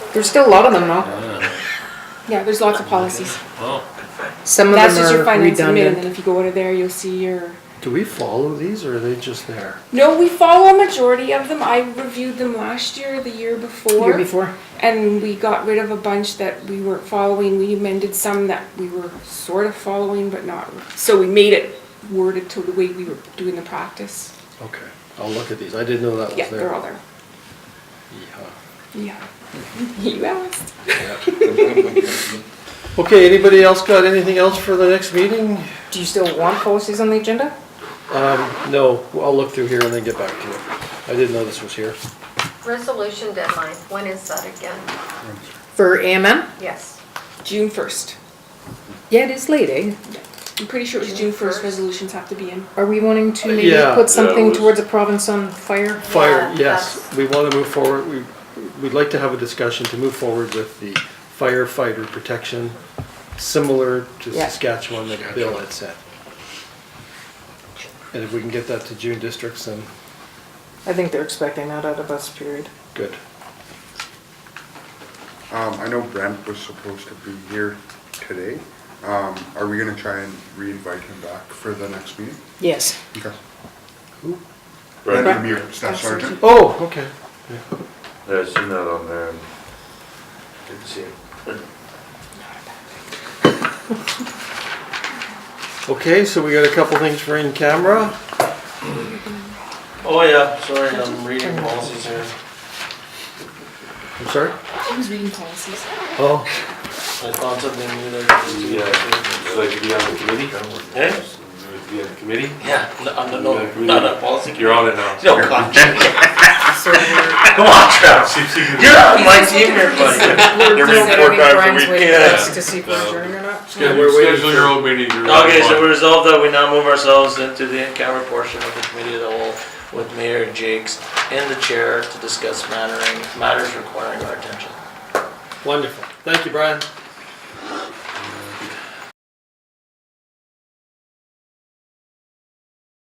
There's still a lot of them though. Yeah, there's lots of policies. Well, Some of That's just them your are finance admin, and redundant. then if you go over there, you'll see your. Do we follow these or are they just there? No, we follow a majority of them. I reviewed them last year, the year before. Year before. And we got rid of a bunch that we weren't following. We amended some that we were sort of following, but not. So we made it worded to the way we were doing the practice. Okay, I'll look at these. I didn't know that was there. Yeah, they're all there. Yeehaw. Yeah. You asked. Okay, anybody else got anything else for the next meeting? Do you still want policies on the agenda? Um, no, I'll look through here and then get back to you. I didn't know this was here. Resolution deadline, when is that again? For AMM? Yes. June 1st. Yeah, it is late, eh? I'm pretty sure it was June 1st. Resolutions have to be in. Are we wanting to maybe Yeah. put something Yeah, it was- towards a province on fire? Fire, Yeah, yes, that's- we want to move forward, we, we'd like to have a discussion to move forward with the firefighter protection, similar to Yeah. Saskatchewan that Bill had said. And if we can get that to June districts, then I think they're expecting that out of us, period. good. Um, I know Brent was supposed to be here today. Um, are we gonna try and re-invite him back for the next meeting? Yes. Okay. Who? Brent Brent, Lemire, Staff Sergeant. Oh, okay. yeah, I seen that on there and didn't see it. Okay, so we got a couple things for in camera. Oh, yeah, sorry, I'm reading Um, policies here. I'm sorry? I was reading policies. Oh, I thought something new there. So I could be on the committee? Eh? Be on the committee? Yeah, no, I'm Yeah, not, no, really. not a policy. You're on it now. No, God. So we're. Come on, Travis. You're on my team here, buddy. We're considering Brian's way yeah. to see if we're adjourned or not? Yeah, we're waiting Schedule your own meeting. you're on Okay, one. so we resolved that we now move ourselves into the in-camera portion of the committee of the whole with Mayor Jakes and the chair to discuss mattering, matters requiring our attention. wonderful. Thank you, Brian.